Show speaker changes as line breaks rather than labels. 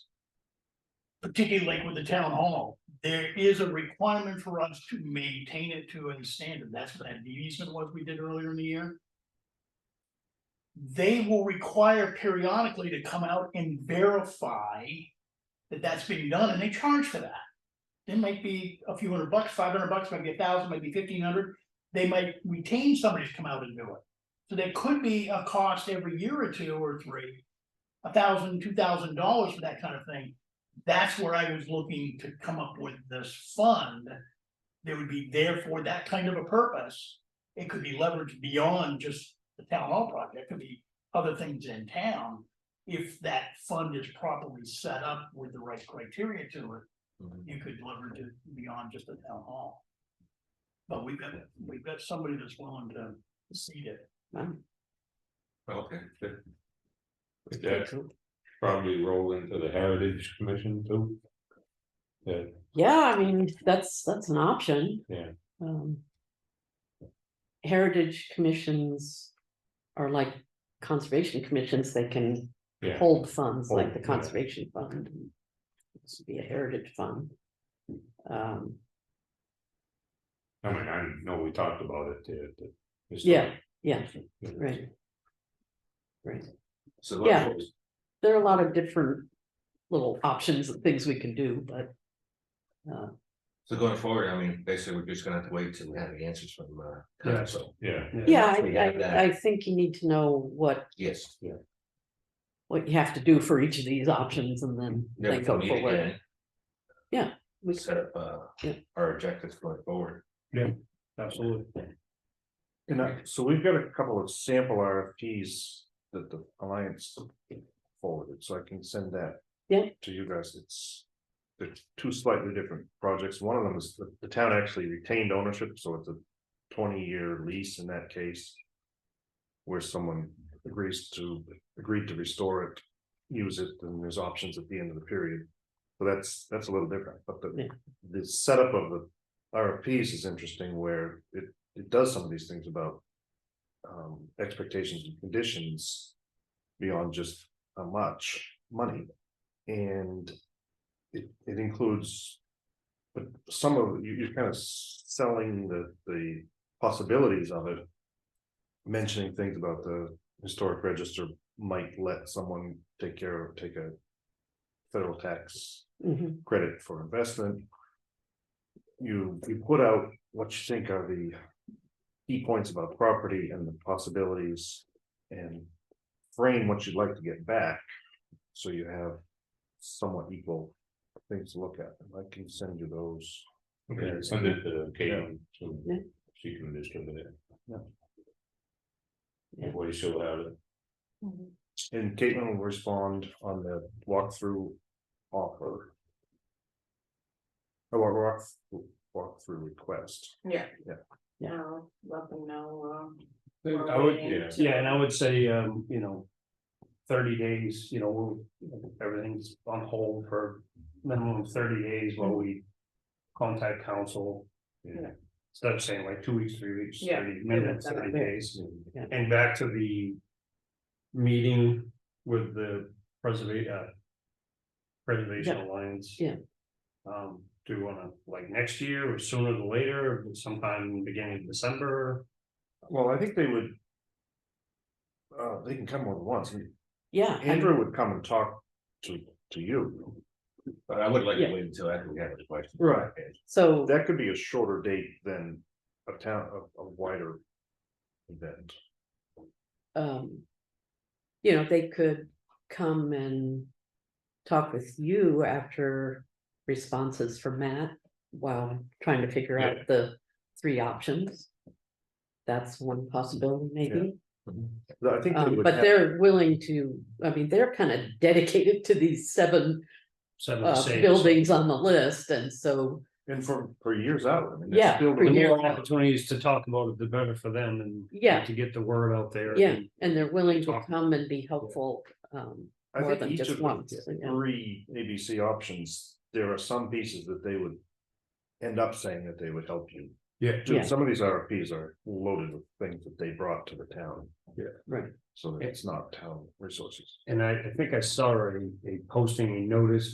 particularly like with the town hall, there is a requirement for us to maintain it to a standard. That's what that deed easement was we did earlier in the year. They will require periodically to come out and verify that that's being done, and they charge for that. It might be a few hundred bucks, five hundred bucks, might be a thousand, might be fifteen hundred. They might retain somebody to come out and do it. So there could be a cost every year or two or three, a thousand, two thousand dollars for that kind of thing. That's where I was looking to come up with this fund. There would be there for that kind of a purpose. It could be leveraged beyond just the town hall project, it could be other things in town. If that fund is properly set up with the right criteria to it,
Mm-hmm.
you could leverage it beyond just the town hall. But we've got, we've got somebody that's willing to seed it.
Okay. good. Would that probably roll into the Heritage Commission too? Yeah,
Yeah, I mean, that's, that's an option.
Yeah.
Um. Heritage commissions are like conservation commissions, they can
yeah,
hold funds like the
Hold, yeah.
conservation fund. This would be a heritage fund. Um,
I mean, I know we talked about it. the- the- the stuff.
yeah, yeah, right. Right,
So
Yeah.
let's-
there are a lot of different little options and things we can do, but. Uh,
So going forward, I mean, basically, we're just gonna have to wait till we have the answers from uh
Yeah.
council.
Yeah,
yeah,
We have
I,
that.
I, I think you need to know what
Yes. Yeah.
what you have to do for each of these options and then
Then
they
we can
go
meet
forward.
again.
Yeah, we-
Set up uh
Yeah.
our objectives going forward.
Absolutely. And uh, so we've got a couple of sample RFPs that the Alliance forwarded, so I can send that.
Yeah.
To you guys, it's, they're two slightly different projects, one of them is the, the town actually retained ownership, so it's a twenty-year lease in that case. Where someone agrees to, agreed to restore it, use it, and there's options at the end of the period. So that's, that's a little different, but the,
Yeah.
the setup of the RFPs is interesting where it, it does some of these things about. Um, expectations and conditions beyond just how much money. And it, it includes. But some of, you, you're kind of selling the, the possibilities of it. Mentioning things about the historic register might let someone take care of, take a. Federal tax
Mhm.
credit for investment. You, you put out what you think are the key points about property and the possibilities and frame what you'd like to get back, so you have somewhat equal things to look at. And I can send you those.
okay, send it to Kate, so
Yeah.
she can distribute it.
Yeah.
That way she'll have it,
And Caitlin will respond on the walkthrough offer. Or walk, walkthrough request.
Yeah.
Yeah.
Yeah.
No, let them know, um.
I would, yeah,
Yeah, and I would say, um, you know, thirty days, you know, we'll- everything's on hold for minimum of thirty days while we contact council.
Yeah.
Instead of saying like two weeks, three weeks,
Yeah,
thirty minutes,
yeah,
thirty
yeah.
days,
Yeah.
and back to the meeting with the preservation, uh, Preservation
Yeah.
Alliance.
Yeah.
Um, do you wanna, like, next year or sooner than later, sometime beginning of December?
Well, I think they would. Uh, they can come more than once.
Yeah, I-
Andrew would come and talk to, to you.
But I would like to
Yeah.
wait until after we have the question.
Right.
so,
That could be a shorter date than a town, a, a wider. Event.
um. You know, they could come and talk with you after responses from Matt while trying to figure out the three options. That's one possibility maybe,
I think. they
um,
would
but
have-
they're willing to, I mean, they're kind of dedicated to these seven
Seven
uh
days.
buildings on the list and so.
And for, for years out. I mean,
Yeah,
that's still.
for
The
years.
the-
more opportunities to talk about it, the better for them and.
Yeah.
To get the word out there.
Yeah, and they're willing to
Talk.
come and be helpful, um,
I
more
think
than
each
just
of
one,
the
yeah.
three ABC options, there are some pieces that they would. End up saying that they would help you.
Yeah.
Yeah.
Dude, Some of these RFPs are loaded with things that they brought to the town.
Yeah.
Right.
So that it's not town resources.
And I, I think I saw a, a posting, a notice